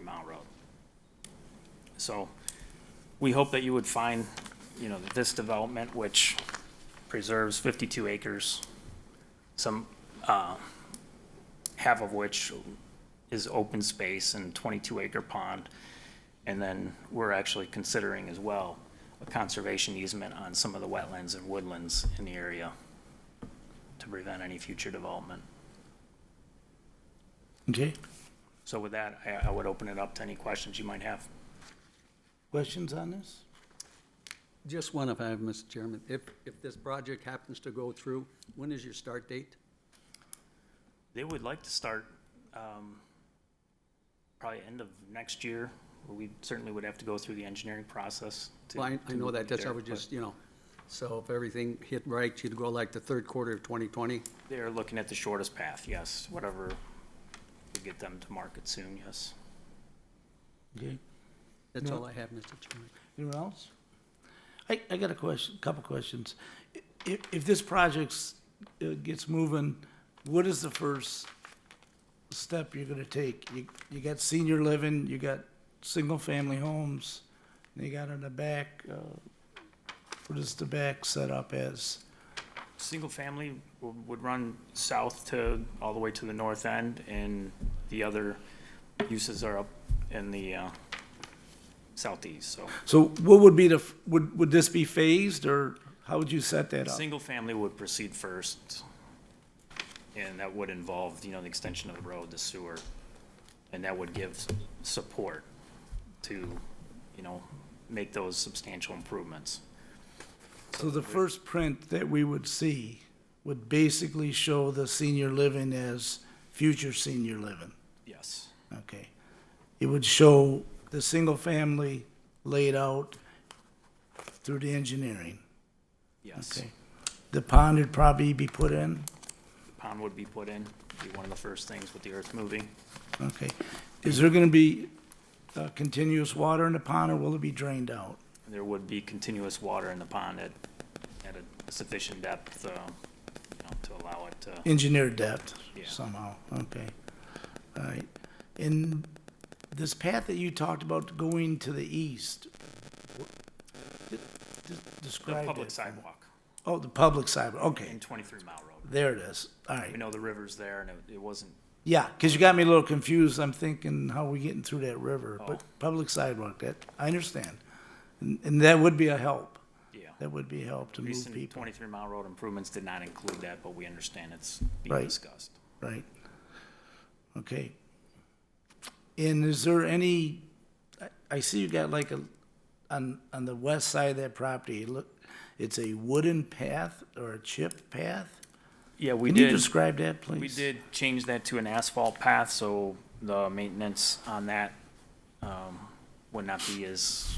Mount Road. So we hope that you would find, you know, that this development, which preserves 52 acres, some, uh, half of which is open space and 22-acre pond. And then we're actually considering as well a conservation easement on some of the wetlands and woodlands in the area to prevent any future development. Okay, So with that, I, I would open it up to any questions you might have. questions on this? Just one if I have, Mr. Chairman. If, if this project happens to go through, when is your start date? They would like to start, um, probably end of next year. We certainly would have to go through the engineering process. to- Well, I, I know that, that's, I Sure. was just, you know, so if everything hit right, you'd go like the third quarter of 2020? They're looking at the shortest path, yes, whatever would get them to market soon, yes. Okay, That's No. all I have, Mr. Chairman. anyone else? I, I got a question, couple questions. If, if this project's, uh, gets moving, what is the first step you're gonna take? You, you got senior living, you got single-family homes, and you got in the back, uh, what is the back set up as? Single family w- would run south to, all the way to the north end, and the other uses are up in the, uh, southeast, so. So what would be the, f- would, would this be phased, or how would you set that up? Single family would proceed first, and that would involve, you know, the extension of the road, the sewer, and that would give s- support to, you know, make those substantial improvements. So the first print that we would see would basically show the senior living as future senior living, Yes, okay? It would show the single family laid out through the engineering, yes. okay? The pond would probably be put in, Pond would be put in, be one of the first things with the earth moving. okay? Is there gonna be uh, continuous water in the pond, or will it be drained out? There would be continuous water in the pond at, at a sufficient depth, uh, you know, to allow it to. engineer depth Yeah. somehow, okay. All right, and this path that you talked about going to the east, wh- d- d- The describe public it. sidewalk Oh, the public side, okay, in twenty-three mile road. there it is, all We right. know the river's there and it, it wasn't Yeah, because you got me a little confused, I'm thinking, how are we getting through that river? But Oh. public sidewalk, that, I understand. And, and that would be a help, Yeah. that would be a help to move Recent people, twenty-three mile road improvements did not include that, but we understand it's Right. being discussed. right? Okay. And is there any, I, I see you got like a, on, on the west side of that property, look, it's a wooden path or a chip path? Yeah, we Can you did, describe that, please? we did change that to an asphalt path, so the maintenance on that, um, would not be as,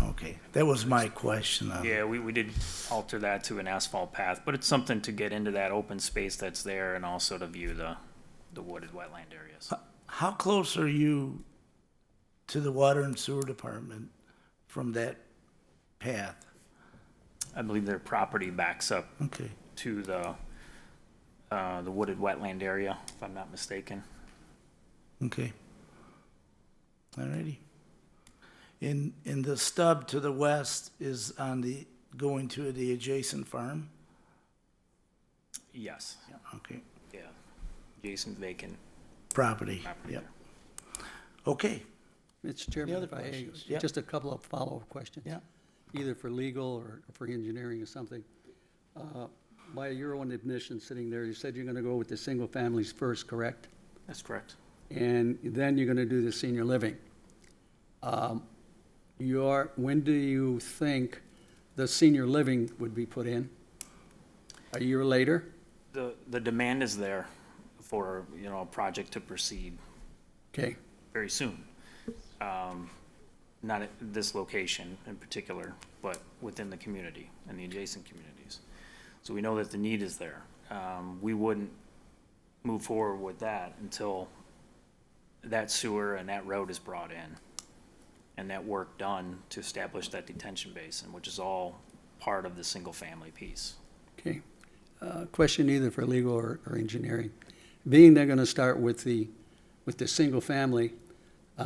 Okay, that was my question. uh, yeah, we, we did alter that to an asphalt path, but it's something to get into that open space that's there and also to view the, the wooded wetland areas. How close are you to the water and sewer department from that path? I believe their property backs up Okay, to the, uh, the wooded wetland area, if I'm not mistaken. okay. All righty. And, and the stub to the west is on the, going to the adjacent farm? Yes, Okay, yeah. Jason vacant property, property yep. there. Okay, Mr. Chairman, other if I, questions? Yeah. may, just a couple of follow-up questions. Yeah. Either for legal or for engineering or something. Uh, By your own admission, sitting there, you said you're going to go with the single families first, correct? That's correct. and then you're gonna do the senior living. Um, Your, when do you think the senior living would be put in? A year later? The, the demand is there for, you know, a project to proceed Okay, very soon. Um, Not at this location in particular, but within the community and the adjacent communities. So we know that the need is there. Um, We wouldn't move forward with that until that sewer and that road is brought in and that work done to establish that detention basin, which is all part of the single-family piece. okay. Uh, Question either for legal or, or engineering. Being they're gonna start with the, with the single family,